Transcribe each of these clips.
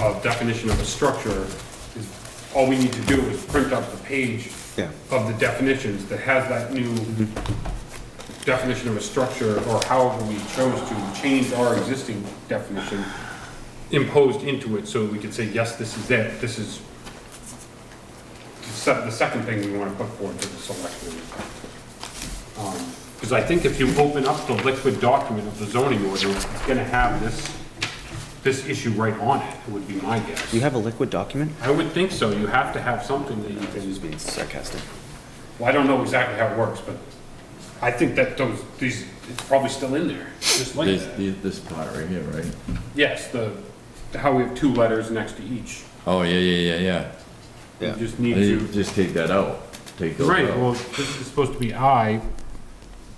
uh, definition of a structure, is, all we need to do is print up the page Yeah. of the definitions that has that new definition of a structure, or however we chose to change our existing definition imposed into it, so we could say, yes, this is it, this is the se- the second thing we want to put forward to the selectmen. Because I think if you open up the liquid document of the zoning order, it's gonna have this, this issue right on it, would be my You guess. have a liquid document? I would think so, you have to have something that you can, Just being sarcastic. well, I don't know exactly how it works, but I think that those, these, it's probably still in there, just like This, that. this this part right here, right? Yes, the, how we have two letters next to each, Oh, yeah, yeah, yeah, yeah. you Yeah. just I need think to, Just take that out. Take those right, out. well, this is supposed to be I.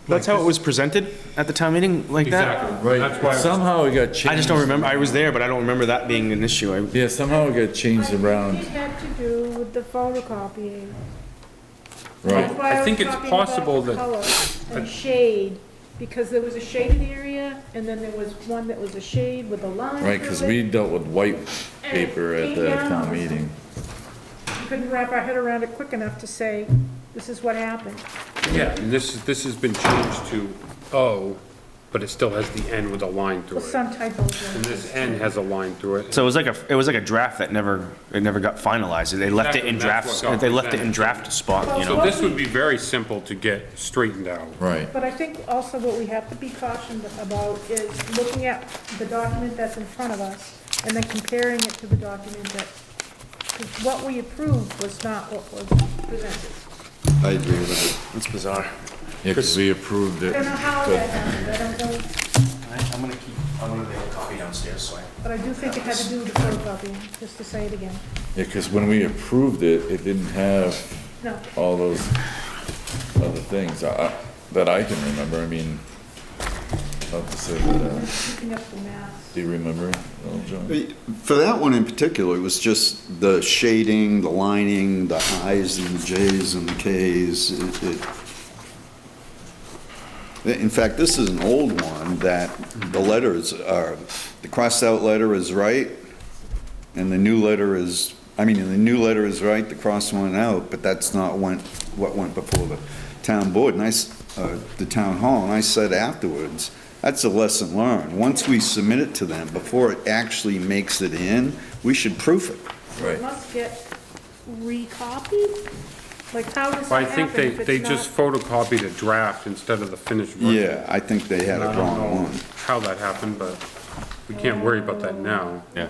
That's how it was presented at the town meeting, like that? Exactly, that's why. Right, I was- somehow it got changed. I just don't remember, I was there, but I don't remember that being an issue. I, Yeah, somehow it got changed It around, had to do with the photocopying. That's right? why I was think it's talking about possible that- Color and shade, because there was a shaded area, and then there was one that was a shade with a line Right, because through we it. dealt with white paper at the town meeting. We Couldn't wrap our head around it quick enough to say, this is what happened. Yeah, and this, is- this has been changed to O, but it still has the N with a line through Well, it. some typos. And were- this N has a line through it. so it was like a, it was like a draft that never, it never got finalized. They left it in Exactly, that's draft, what got they left it in presented. draft spot, you So know? this would be very simple to get straightened out. Right, But I think also what we have to be cautioned about is looking at the document that's in front of us, and then comparing it to the document that, 'cause what we approved was not what was presented. I agree with it. It's bizarre. yeah, because we approved I it. don't know how that happened, I don't know, I'm gonna keep, I'm gonna make a copy downstairs, so I. but I do think it had to do with the photocopying, just to say it again. Yeah, because when we approved it, it didn't have No, all those other things I- that I can remember. I mean, not to say that, uh, picking up the mass. do you remember, Little John? For that one in particular, it was just the shading, the lining, the i's and the j's and the k's. It- it- In fact, this is an old one that the letters are, the crossed-out letter is right, and the new letter is, I mean, the new letter is right, the crossed one out, but that's not went, what went before the town board, and I, s- uh, the town hall, and I said afterwards, that's a lesson learned. Once we submit it to them, before it actually makes it in, we should proof it. It Right. must get recopied? Like, how does I that think happen they, if they it's just not? photocopied a draft instead of the finished version. Yeah, I think they had I a don't wrong know one. how that happened, but we can't worry about that now. Yeah,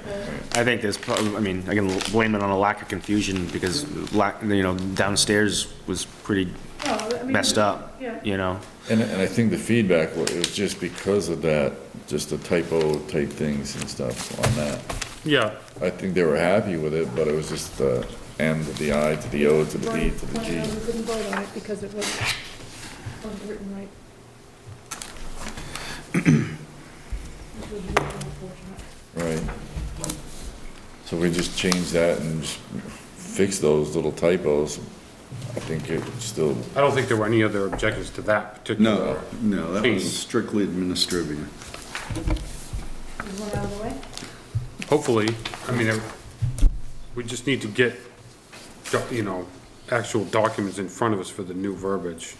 I think there's probably, I mean, I can blame it on a lack of confusion because lack, you know, downstairs was pretty No, I mean, messed up, Yeah. you know? And, and I think the feedback was, it was just because of that, just the typo type things and stuff on that. Yeah, I think they were happy with it, but it was just the M to the I to the O to the D to the Right, G. We couldn't vote on it because it wasn't, wasn't written right. Which would be unfortunate. Right. So we just changed that and just fixed those little typos. I think it still, I don't think there were any other objections to that No, particular. no, that Change. was strictly administrative. Is one out of the way? Hopefully, I mean, it- we just need to get, doc- you know, actual documents in front of us for the new verbiage.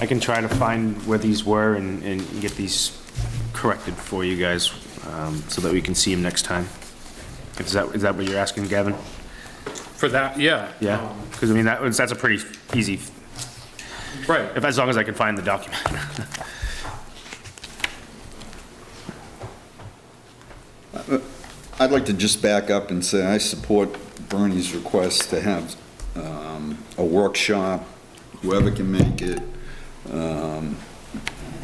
I can try to find where these were and, and get these corrected for you guys, um, so that we can see them next time. Is that, is that what you're asking, Gavin? For that, yeah. Yeah, because I mean, that was, that's a pretty easy, Um, Right. if, as long as I can find the document. I'd like to just back up and say I support Bernie's request to have um, a workshop, whoever can make it. Um,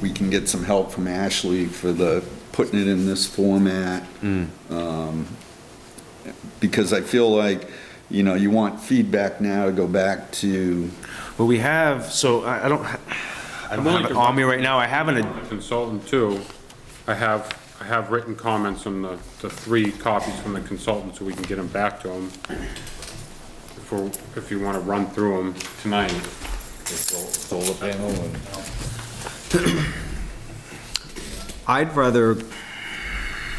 We can get some help from Ashley for the, putting it in this format. Um, Because I feel like, you know, you want feedback now to go back to, Well, we have, so I, I don't, ha- I don't willing have it to- on me right now, I have an, The Consultant too, I have, I have written comments on the, the three copies from the consultant, so we can get them back to him. If we're, if you wanna run through them tonight. solar panel and. I'd rather